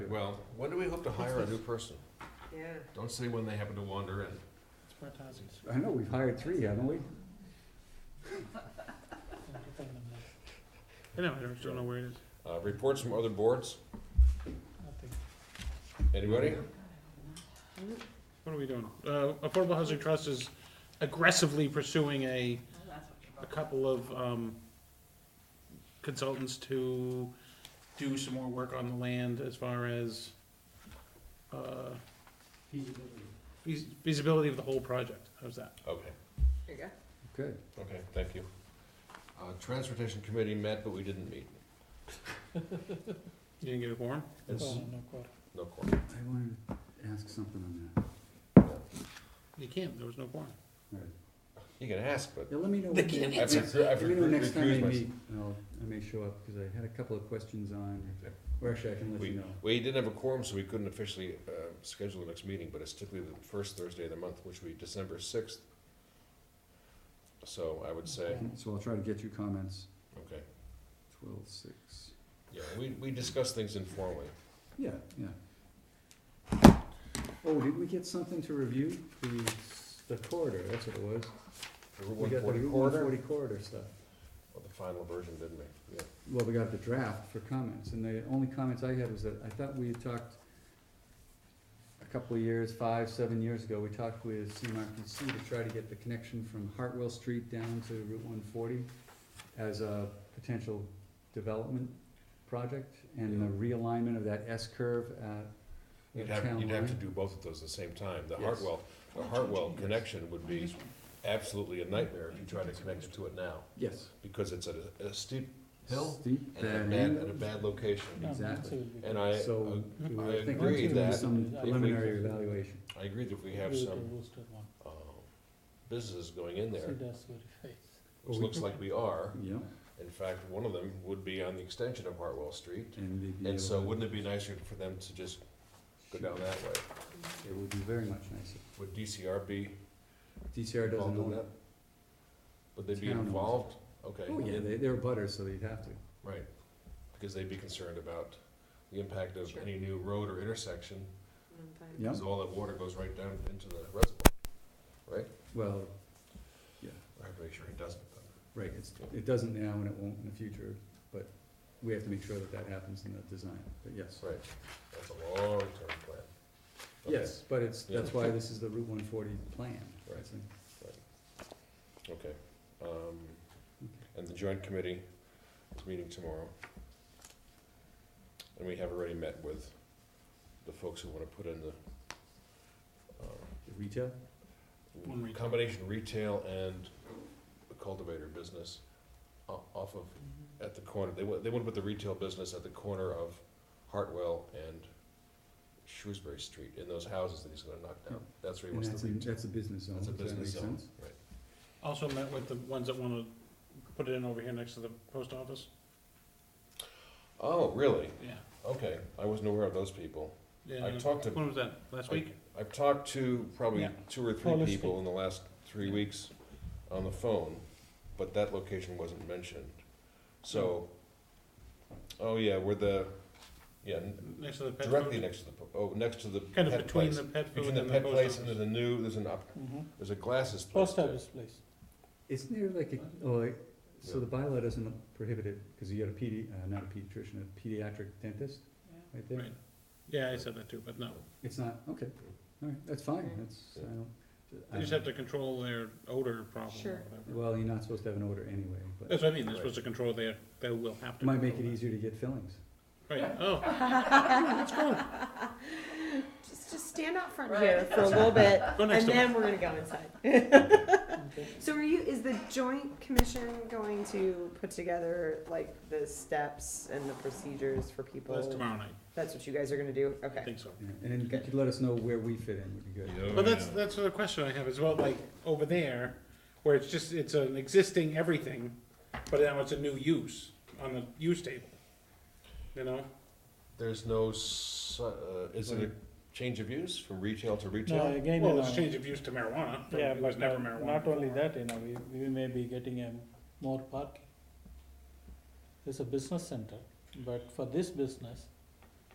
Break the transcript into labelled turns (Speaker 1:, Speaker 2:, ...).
Speaker 1: Well, when do we hope to hire a new person?
Speaker 2: Yeah.
Speaker 1: Don't say when they happen to wander in.
Speaker 3: It's Bartosi's.
Speaker 4: I know, we've hired three, haven't we?
Speaker 3: I know, I don't, don't know where it is.
Speaker 1: Uh, reports from other boards,
Speaker 3: Nothing.
Speaker 1: anybody?
Speaker 3: What are we doing? Uh, Affordable Housing Trust is aggressively pursuing a, a couple of, um, consultants to do some more work on the land as far as, uh, feas- feasibility of the whole project. How's that?
Speaker 1: Okay,
Speaker 2: There you go.
Speaker 4: Good.
Speaker 1: okay, thank you. Uh, Transportation Committee met, but we didn't meet.
Speaker 3: You didn't get a quorum?
Speaker 1: It's no
Speaker 4: I
Speaker 1: quorum.
Speaker 4: wanted to ask something on that.
Speaker 3: You can't, there was no quorum.
Speaker 4: All right.
Speaker 1: You can ask, but
Speaker 4: Yeah, let me know. when
Speaker 2: They
Speaker 4: they-
Speaker 2: can't
Speaker 1: I've recru- I've
Speaker 4: Let me know
Speaker 1: recru-
Speaker 4: next time they
Speaker 1: recused myself.
Speaker 4: meet, and I'll, I may show up, because I had a couple of questions on,
Speaker 1: Okay.
Speaker 4: or actually, I can let you know.
Speaker 1: We didn't have a quorum, so we couldn't officially uh, schedule the next meeting, but it's typically the first Thursday of the month, which would be December sixth. So I would say,
Speaker 4: So I'll try to get you comments,
Speaker 1: okay,
Speaker 4: twelve, six,
Speaker 1: yeah, we, we discuss things informally.
Speaker 4: yeah, yeah. Oh, did we get something to review? The, the corridor, that's what it was.
Speaker 1: Route
Speaker 4: We got the
Speaker 1: 140
Speaker 4: Route
Speaker 1: corridor?
Speaker 4: 140 corridor stuff.
Speaker 1: Well, the final version, didn't we? Yeah.
Speaker 4: Well, we got the draft for comments, and the only comments I had was that I thought we had talked a couple of years, five, seven years ago, we talked with CMRPC to try to get the connection from Hartwell Street down to Route one forty as a potential development project, and the realignment of that S curve at
Speaker 1: You'd
Speaker 4: the
Speaker 1: have,
Speaker 4: town
Speaker 1: you'd have to
Speaker 4: line.
Speaker 1: do both of those at the same time. The
Speaker 4: Yes.
Speaker 1: Hartwell, the Hartwell connection would be
Speaker 3: This one.
Speaker 1: absolutely a nightmare if you try to connect to it now,
Speaker 4: Yes.
Speaker 1: because it's at a, a steep hill
Speaker 4: Steep
Speaker 1: and at a
Speaker 4: bad
Speaker 1: bad,
Speaker 4: end.
Speaker 1: at a bad location.
Speaker 4: Exactly.
Speaker 1: And I,
Speaker 4: So,
Speaker 3: I
Speaker 4: we were thinking
Speaker 1: agree
Speaker 4: of
Speaker 1: that
Speaker 4: some
Speaker 3: if we-
Speaker 4: preliminary evaluation.
Speaker 1: I agree that we have some, uh, businesses going in there, which
Speaker 4: Well, we-
Speaker 1: looks like we are.
Speaker 4: Yeah,
Speaker 1: In fact, one of them would be on the extension of Hartwell Street,
Speaker 4: and they'd be
Speaker 1: and so
Speaker 4: able to-
Speaker 1: wouldn't it be nicer for them to just go down that way?
Speaker 4: It would be very much nicer.
Speaker 1: Would DCR be
Speaker 4: DCR doesn't
Speaker 1: involved in
Speaker 4: own
Speaker 1: that?
Speaker 4: it.
Speaker 1: Would they be
Speaker 4: Town owns it.
Speaker 1: involved? Okay.
Speaker 4: Oh, yeah, they, they're butters, so they'd have to.
Speaker 1: Right, because they'd be concerned about the impact of any new road or intersection,
Speaker 4: Yeah,
Speaker 1: because all that water goes right down into the reservoir, right?
Speaker 4: well, yeah,
Speaker 1: I have to make sure it doesn't, but,
Speaker 4: right, it's, it doesn't now and it won't in the future, but we have to make sure that that happens in the design, but yes.
Speaker 1: right, that's a long-term plan. Okay,
Speaker 4: Yes, but it's, that's
Speaker 1: Yeah.
Speaker 4: why this is the Route one forty plan.
Speaker 1: Right.
Speaker 4: It's like-
Speaker 1: Okay, um, and the joint committee is meeting tomorrow. And we have already met with the folks who wanna put in the, um,
Speaker 4: the Retail,
Speaker 3: One retail.
Speaker 1: combination retail and cultivator business o- off of at the corner, they want, they want to put the retail business at the corner of Hartwell and Shrewsbury Street, in those houses that he's gonna knock down. That's where he
Speaker 4: and
Speaker 1: wants
Speaker 4: that's,
Speaker 1: the
Speaker 4: in-
Speaker 1: retail.
Speaker 4: that's a business zone,
Speaker 1: That's
Speaker 4: does
Speaker 1: a
Speaker 4: that make
Speaker 1: business zone,
Speaker 4: sense?
Speaker 1: right.
Speaker 3: Also met with the ones that wanna put it in over here next to the post office.
Speaker 1: Oh, really?
Speaker 3: Yeah.
Speaker 1: Okay, I wasn't aware of those people.
Speaker 3: Yeah.
Speaker 1: I talked to,
Speaker 3: When was that, last
Speaker 1: I-
Speaker 3: week?
Speaker 1: I've talked to probably
Speaker 3: Yeah.
Speaker 1: two or
Speaker 3: Well,
Speaker 1: three
Speaker 3: let's
Speaker 1: people in the last three
Speaker 3: Yeah.
Speaker 1: weeks on the phone, but that location wasn't mentioned. So, oh yeah, where the, yeah, n-
Speaker 3: Next to the pet
Speaker 1: directly
Speaker 3: food?
Speaker 1: next to the, po- oh, next to the pet place.
Speaker 3: Kind of between the pet food
Speaker 1: Between the
Speaker 3: and the
Speaker 1: pet place
Speaker 3: post
Speaker 1: and
Speaker 3: office.
Speaker 1: there's a new, there's an up, there's a glasses place.
Speaker 5: Post
Speaker 1: there.
Speaker 5: office place.
Speaker 4: Isn't there like, a- oh, like, so the bylaw doesn't prohibit it, cause you got a PD, uh, not a pediatrician, a pediatric dentist, right there?
Speaker 3: Right. Yeah, I said that too, but no,
Speaker 4: It's not, okay, alright, that's fine, that's, I
Speaker 1: Yeah.
Speaker 4: don't. I
Speaker 3: they just
Speaker 4: don't-
Speaker 3: have to control their odor problem or
Speaker 2: Sure.
Speaker 3: whatever.
Speaker 4: Well, you're not supposed to have an order anyway, but
Speaker 3: That's what I mean, they're supposed to control their, they will have
Speaker 4: it
Speaker 3: to.
Speaker 4: might make it
Speaker 3: control
Speaker 4: easier to get fillings.
Speaker 3: that. Right, oh,
Speaker 2: Just, just stand out front here for a little bit,
Speaker 3: go next
Speaker 2: and
Speaker 3: to
Speaker 2: then we're
Speaker 3: them.
Speaker 2: gonna go inside. So are you, is the joint commission going to put together, like, the steps and the procedures for people?
Speaker 3: That's tomorrow night,
Speaker 2: That's what you guys are gonna do?
Speaker 3: I
Speaker 2: Okay.
Speaker 3: think so.
Speaker 4: Yeah, And then you could let us know where we fit in would be good.
Speaker 1: Yeah.
Speaker 3: But that's, that's the question I have as well, like, over there, where it's just, it's an existing everything, but now it's a new use on the use table. You know,
Speaker 1: There's no, s- uh, is it a change of use from retail to
Speaker 5: Now,
Speaker 1: retail?
Speaker 5: again, you
Speaker 3: well,
Speaker 5: know,
Speaker 3: it's change of use to marijuana, but
Speaker 5: yeah,
Speaker 3: it was
Speaker 5: but
Speaker 3: never
Speaker 5: uh,
Speaker 3: marijuana.
Speaker 5: not only
Speaker 3: before.
Speaker 5: that, you know, we, we may be getting a more parking. It's a business center, but for this business,